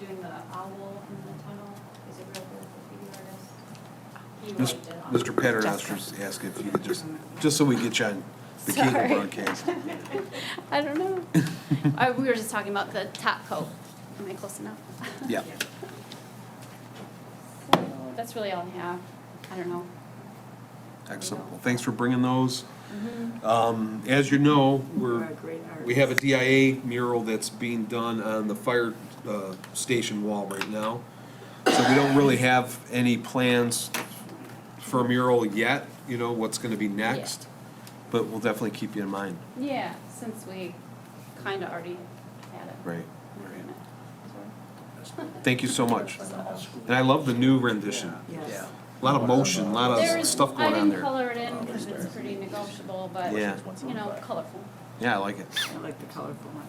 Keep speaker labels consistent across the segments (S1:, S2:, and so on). S1: doing the owl in the tunnel, is a real graffiti artist. He
S2: Mis-
S1: wiped it off.
S2: Mr. Petter asked to ask if you could just, just so we get you on the cable
S3: Sorry.
S2: broadcast.
S3: I don't know. I, we were just talking about the top coat. Am I close enough?
S2: Yeah.
S3: So that's really all I have. I don't know.
S2: Excellent. Well, thanks for bringing those.
S1: Mm-hmm.
S2: Um, As you know,
S4: You're
S2: we're,
S4: a great artist.
S2: we have a DIA mural that's being done on the fire uh, station wall right now. So we don't really have any plans for a mural yet, you know, what's going to be next. But we'll definitely keep you in mind.
S3: Yeah, since we kind of already had it.
S2: Right,
S3: Agreement.
S2: Thank you so much. And I love the new rendition.
S4: Yes.
S2: A lot of motion, a lot
S3: There
S2: of
S3: is,
S2: stuff
S3: I
S2: going on
S3: didn't
S2: there.
S3: color it
S5: Oh,
S3: in because it's pretty negotiable, but,
S2: Yeah.
S3: you know, colorful.
S2: Yeah, I like it.
S4: I like the colorful one.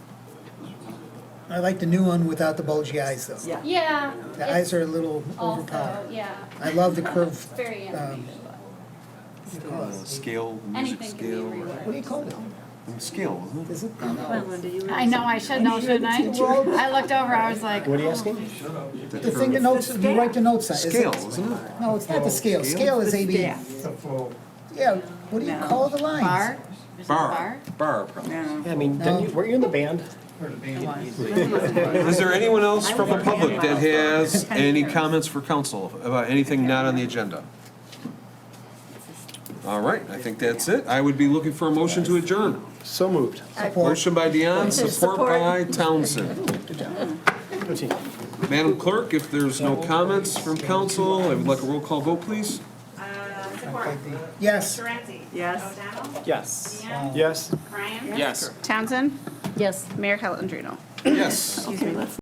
S5: I like the new one without the bulgy eyes, though.
S4: Yeah.
S3: Yeah.
S5: The eyes
S3: it's
S5: are a little
S3: Also,
S5: overpowered.
S3: yeah,
S5: I love the curved,
S3: it's very
S5: um,
S3: animated,
S5: what do you call
S2: Uh,
S5: it?
S2: Scale,
S3: but
S2: music
S3: anything can be
S2: scale.
S3: reworked.
S5: What do you call it?
S2: or- Scale, isn't it?
S5: Is it?
S4: Come on, Linda, you.
S6: I know, I should know, shouldn't I? I looked over, I was like,
S7: What are you asking?
S5: The thing that notes, you write the notes on. is it-
S2: Scale, isn't it?
S5: No, it's
S7: Oh,
S5: not the scale. Scale is AB.
S4: Yeah.
S5: Yeah, what do you call the lines?
S6: bar? Is it
S2: Bar, bar probably.
S4: No.
S7: I mean, didn't you, weren't you in the band?
S2: Is there anyone else from the public that has any comments for council about anything not on the agenda? All right, I think that's it. I would be looking for a motion to adjourn.
S7: So moved.
S5: Support.
S2: Motion by Dion, support by Townsend.
S7: Good team.
S2: Madam Clerk, if there's no comments from council, I would like a roll call vote, please.
S8: Uh, Zipporah.
S5: Yes.
S8: Durante.
S4: Yes.
S8: O'Donnell.
S7: Yes.
S8: Deanne.
S7: Yes?
S8: Ryan.
S7: Yes.
S3: Townsend? Yes. Mayor Calendino?
S2: Yes.
S4: Excuse me, let's